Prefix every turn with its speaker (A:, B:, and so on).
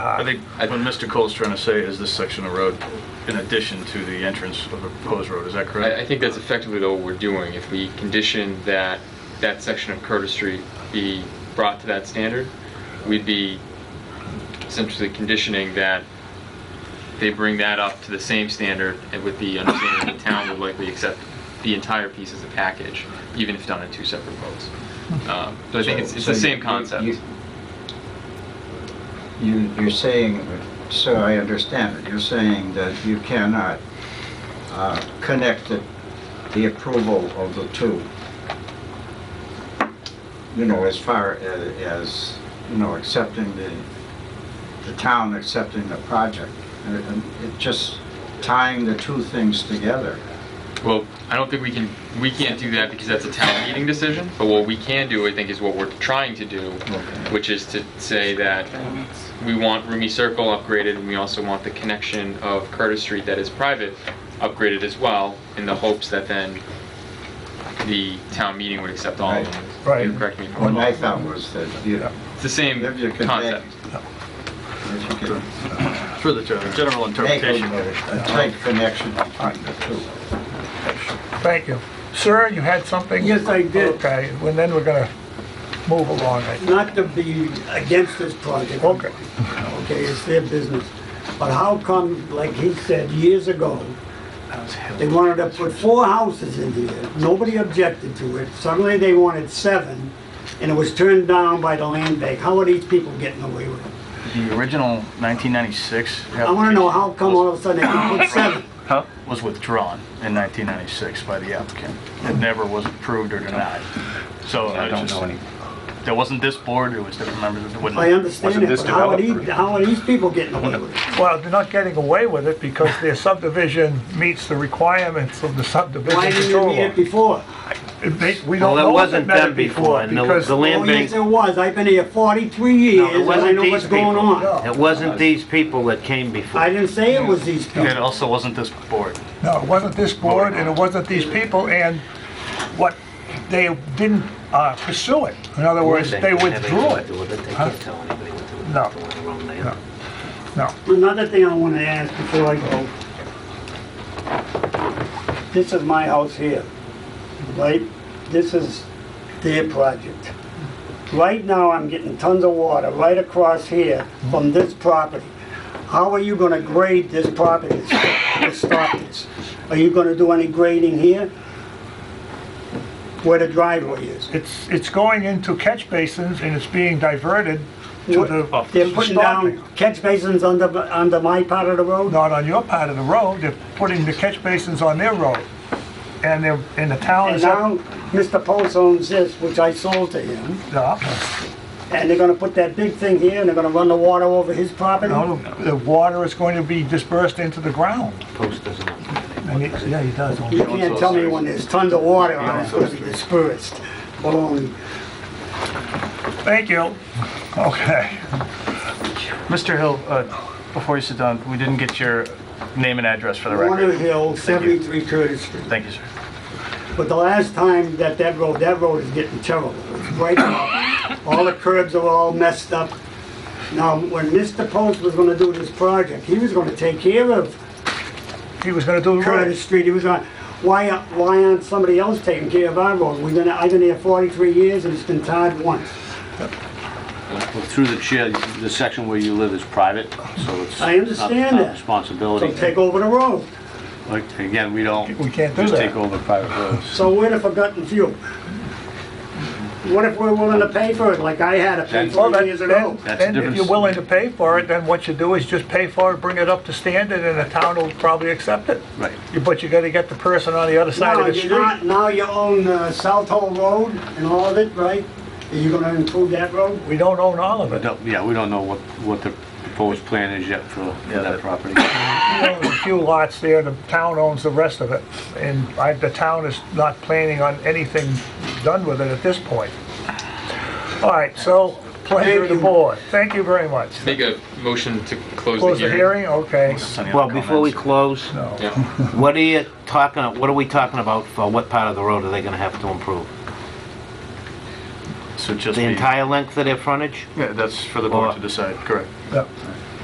A: I think what Mr. Cole's trying to say is this section of road in addition to the entrance of the proposed road, is that correct? Uh,
B: I, I think that's effectively though what we're doing. If we condition that that section of Curtis Street be brought to that standard, we'd be essentially conditioning that they bring that up to the same standard and with the understanding that the town would likely accept the entire piece as a package, even if done in two separate votes. Um, So I think it's, it's the
C: Hmm. So- so
B: same
C: you-
B: concept.
C: you- You, you're saying, so I understand it, you're saying that you cannot uh, connect the, the approval of the two. You know, as far a- as, you know, accepting the, the town accepting the project. And it- and it just tying the two things together.
B: Well, I don't think we can, we can't do that because that's a town meeting decision, but what we can do, I think, is what we're trying to do, which is to say that we want Rumi Circle upgraded, and we also want the connection of Curtis Street that is private upgraded as well, in the hopes that then the town meeting would accept all of them.
D: Right.
B: You Correct me if I'm
C: What I
B: wrong.
C: thought was that, you know,
B: It's the same
C: if you could make-
B: concept.
C: if you could
A: For the gen- general
C: make
A: interpretation.
C: a tight connection between the two.
D: Thank you. Sir, you had something?
E: Yes, I did.
D: Okay, and then we're gonna move along. I-
E: not to be against this project.
D: Okay.
E: Okay, it's their business. But how come, like he said years ago, they wanted to put four houses in here. Nobody objected to it. Suddenly they wanted seven, and it was turned down by the land bank. How are these people getting away with it?
F: The original 1996
E: I wanna know how come all of a sudden they can put seven?
F: Huh? was withdrawn in 1996 by the applicant. It never was approved or denied. So I don't know any. There wasn't this board, it was different members of the... wouldn't-
E: I understand
G: Wasn't
E: it,
G: this
E: but how are these,
G: developer-
E: how are these people getting away with it?
D: Well, they're not getting away with it because their subdivision meets the requirements of the subdivision
E: Why didn't you
D: control
E: meet it
D: law.
E: before?
D: It may- We
G: Well,
D: don't
G: that
D: know if it
G: wasn't
D: met
G: them
D: it before
G: before, and the-
D: because...
G: the land
E: Oh, yes,
G: bank,
E: it was. I've been here forty-three years, and I
G: wasn't
E: know
G: these
E: what's going
G: people.
E: on.
D: No,
G: it wasn't these people that came before.
E: I didn't say it was these people.
F: It also wasn't this board.
D: No, it wasn't this board and it wasn't these people and what, they didn't uh, pursue it. In other words, they withdrew it.
G: They
D: Huh?
G: can't tell anybody what to do.
D: No.
G: They went wrong there.
D: No. No,
E: Another thing I want to ask before I go. This is my house here, right? This is their project. Right now, I'm getting tons of water right across here from this property. How are you going to grade this property to stop- to stop this? Are you going to do any grading here? Where the driveway is?
D: it's, it's going into catch basins and it's being diverted to the...
E: They're putting down catch basins under, under my part of the road?
D: not on your part of the road, they're putting the catch basins on their road. And they're, and the town
E: And
D: is
E: now,
D: out.
E: Mr. Post owns this, which I sold to him, and they're gonna put that big thing here, and they're gonna run the water over his property?
D: No, the water is going to be dispersed into the ground.
G: Post doesn't want to.
D: And it- Yeah, he does.
E: You can't tell me when there's tons of water on it, it's gonna be dispersed. Um,
D: Thank you. Okay.
F: Mr. Hill, uh, before you sit down, we didn't get your name and address for the
E: Warner
F: record.
E: Hill, seventy-three Curtis Street.
F: Thank you, sir.
E: But the last time that that road, that road is getting terrible. It's breaking up. All the curbs are all messed up. Now, when Mr. Post was gonna do this project, he was gonna take care of
D: He was gonna do the road.
E: Curtis Street, he was on, why, why aren't somebody else taking care of our road? We've been, I've been here 43 years and it's been tarred once.
G: Well, Through the chair, the section where you live is private, so it's.
E: I understand
G: not- not
E: that. So
G: Responsibility.
E: take over the road.
G: Like, Again, we don't.
D: We can't do
G: Just
D: that.
G: take over private roads.
E: So we're the forgotten few. What if we're willing to pay for it like I had to pay
D: Well,
E: for it
D: then,
E: years ago?
D: then-
G: That's
D: then if
G: different.
D: you're willing to pay for it, then what you do is just pay for it, bring it up to standard, and the town will probably accept it.
G: Right.
D: You- But you gotta get the person on the other side
E: Now,
D: of the
E: you're not,
D: street.
E: now you own uh, South Hole Road and all of it, right? Are you gonna improve that road?
D: We don't own all of it.
G: Don't- Yeah, we don't know what, what the proposed plan is yet for for that property.
D: We own a few lots there, the town owns the rest of it, and I, the town is not planning on anything done with it at this point. All right, so, pleasure of the board, thank you very much.
B: Make a motion to close
D: Close
B: the
D: the
B: hearing.
D: hearing, okay.
F: Any other
G: Well, before we
F: comments?
G: close,
B: Yeah.
G: what are you talking, what are we talking about for what part of the road are they gonna have to improve?
F: So just
G: The
F: be-
G: entire length of their frontage?
F: Yeah, that's for the board to decide, correct.
D: Yeah.